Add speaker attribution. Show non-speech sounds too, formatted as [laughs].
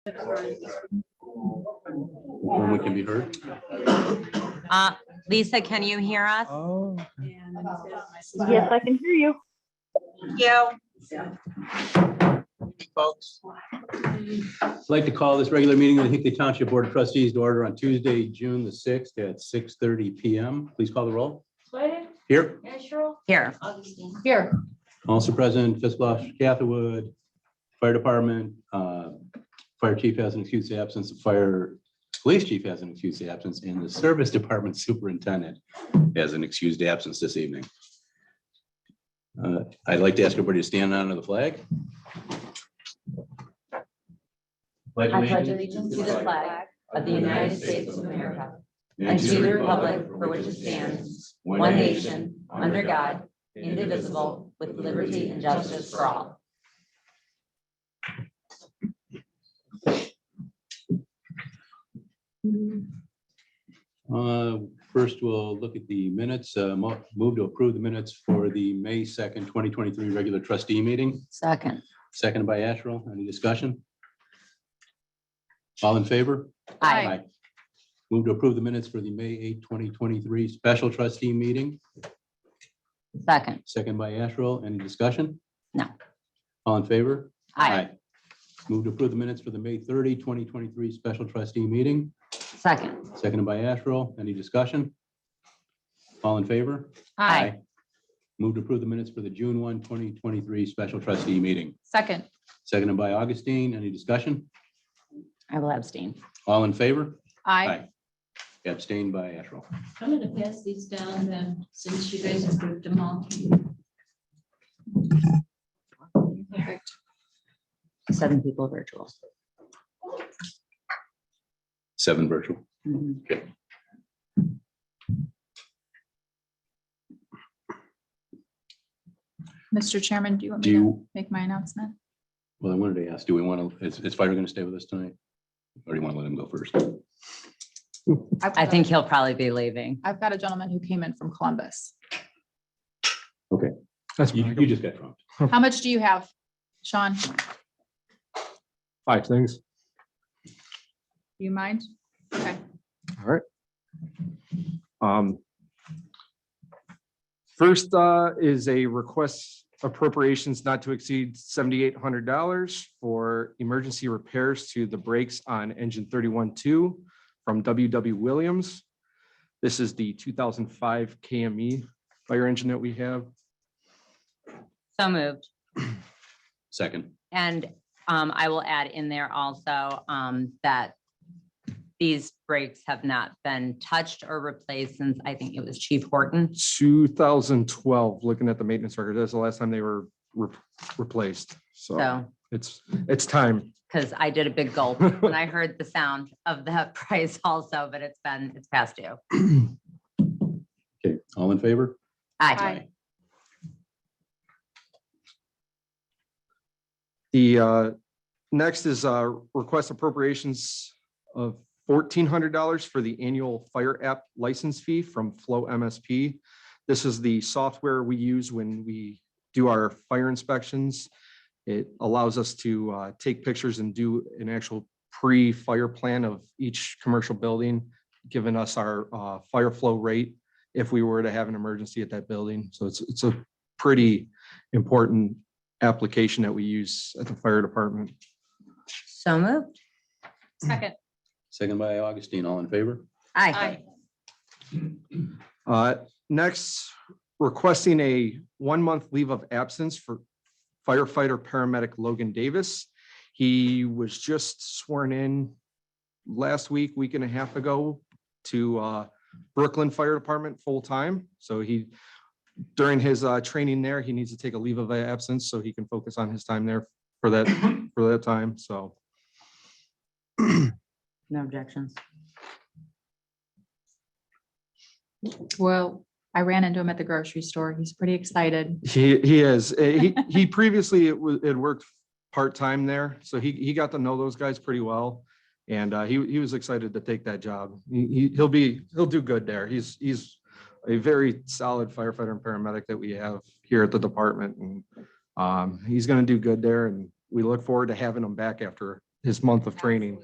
Speaker 1: When we can be heard?
Speaker 2: Uh, Lisa, can you hear us?
Speaker 3: Oh.
Speaker 4: Yes, I can hear you.
Speaker 2: Yeah.
Speaker 1: I'd like to call this regular meeting of the Hickley Township Board of Trustees to order on Tuesday, June the sixth at six thirty PM. Please call the roll.
Speaker 5: Sweater,
Speaker 1: Here,
Speaker 5: Asherle,
Speaker 2: Here,
Speaker 5: Augustine.
Speaker 4: Here.
Speaker 1: also present, Fiskalosh, Catherwood, Fire Department, uh, Fire Chief has an excuse absence, the Fire Police Chief has an excused absence, and the Service [laughs] Department Superintendent has an excused absence this evening. Uh, I'd like to ask everybody to stand under the flag.
Speaker 6: I pledge allegiance to the flag of the United States of America and to the republic for which it stands, one nation, under God, indivisible, with liberty and justice for all.
Speaker 1: Uh, First, we'll look at the minutes. Uh, mo- Move to approve the minutes for the May 2nd, 2023 regular trustee meeting,
Speaker 6: Second,
Speaker 1: seconded by Asherle. Any discussion? All in favor?
Speaker 6: Aye.
Speaker 1: Move to approve the minutes for the May 8th, 2023 special trustee meeting,
Speaker 6: second,
Speaker 1: seconded by Asherle. Any discussion?
Speaker 6: No.
Speaker 1: All in favor?
Speaker 6: aye,
Speaker 1: Move to approve the minutes for the May 30, 2023 special trustee meeting,
Speaker 6: second,
Speaker 1: seconded by Asherle. Any discussion? All in favor?
Speaker 6: aye,
Speaker 1: Move to approve the minutes for the June 1, 2023 special trustee meeting.
Speaker 4: Second,
Speaker 1: Seconded by Augustine. Any discussion?
Speaker 6: I will abstain.
Speaker 1: All in favor?
Speaker 4: I,
Speaker 1: Abstained by Asherle.
Speaker 5: I'm gonna pass these down then, since you guys approved them all. Perfect.
Speaker 6: Seven people virtual.
Speaker 1: Seven virtual.
Speaker 6: Mhm.
Speaker 4: Mr. Chairman, do you want
Speaker 1: Do
Speaker 4: me to
Speaker 1: you,
Speaker 4: make my announcement?
Speaker 1: well, I wanted to ask, do we want to, is, is Fire going to stay with us tonight? Or do you want to let him go first?
Speaker 4: I've
Speaker 6: I
Speaker 4: got a-
Speaker 6: think he'll probably be leaving.
Speaker 4: I've got a gentleman who came in from Columbus.
Speaker 3: That's
Speaker 1: You, you just got trumped.
Speaker 4: How much do you have, Sean? Do
Speaker 3: five things.
Speaker 4: you mind? Okay.
Speaker 3: All right. Um. First uh, is a request appropriations not to exceed seventy-eight hundred dollars for emergency repairs to the brakes on engine thirty-one two from WW Williams. This is the two thousand five KME fire engine that we have.
Speaker 6: So moved.
Speaker 1: Second.
Speaker 6: And um, I will add in there also um, that these brakes have not been touched or replaced since I think it was Chief Horton.
Speaker 3: Two thousand twelve, looking at the maintenance record, that's the last time they were re- replaced. So
Speaker 6: So,
Speaker 3: it's, it's time.
Speaker 6: because I did a big gulp when I heard the sound of that [laughs] price also, but it's been, it's past due.
Speaker 1: Okay, all in favor?
Speaker 6: Aye.
Speaker 4: Aye.
Speaker 3: The uh, next is uh, request appropriations of fourteen hundred dollars for the annual fire app license fee from Flow MSP. This is the software we use when we do our fire inspections. It allows us to uh, take pictures and do an actual pre-fire plan of each commercial building, giving us our uh, fire flow rate if we were to have an emergency at that building. So it's, it's a pretty important application that we use at the fire department.
Speaker 6: So moved.
Speaker 4: Second,
Speaker 1: Second by Augustine, all in favor?
Speaker 6: Aye.
Speaker 4: I,
Speaker 3: Uh, Next, requesting a one-month leave of absence for firefighter paramedic Logan Davis. He was just sworn in last week, week and a half ago to uh, Brooklyn Fire Department full-time. So he, during his uh, training there, he needs to take a leave of absence so he can focus on his time there for that, for that time. So
Speaker 6: No objections.
Speaker 4: well, I ran into him at the grocery store. He's pretty excited.
Speaker 3: He he is. Uh, He he previously it was it worked part time there, so he he got to know those guys pretty well, and uh, he he was excited to take that job. He- He he'll be he'll do good there. He's he's a very solid firefighter and paramedic that we have here at the department, and um, he's going to do good there. And we look forward to having him back after his month of training.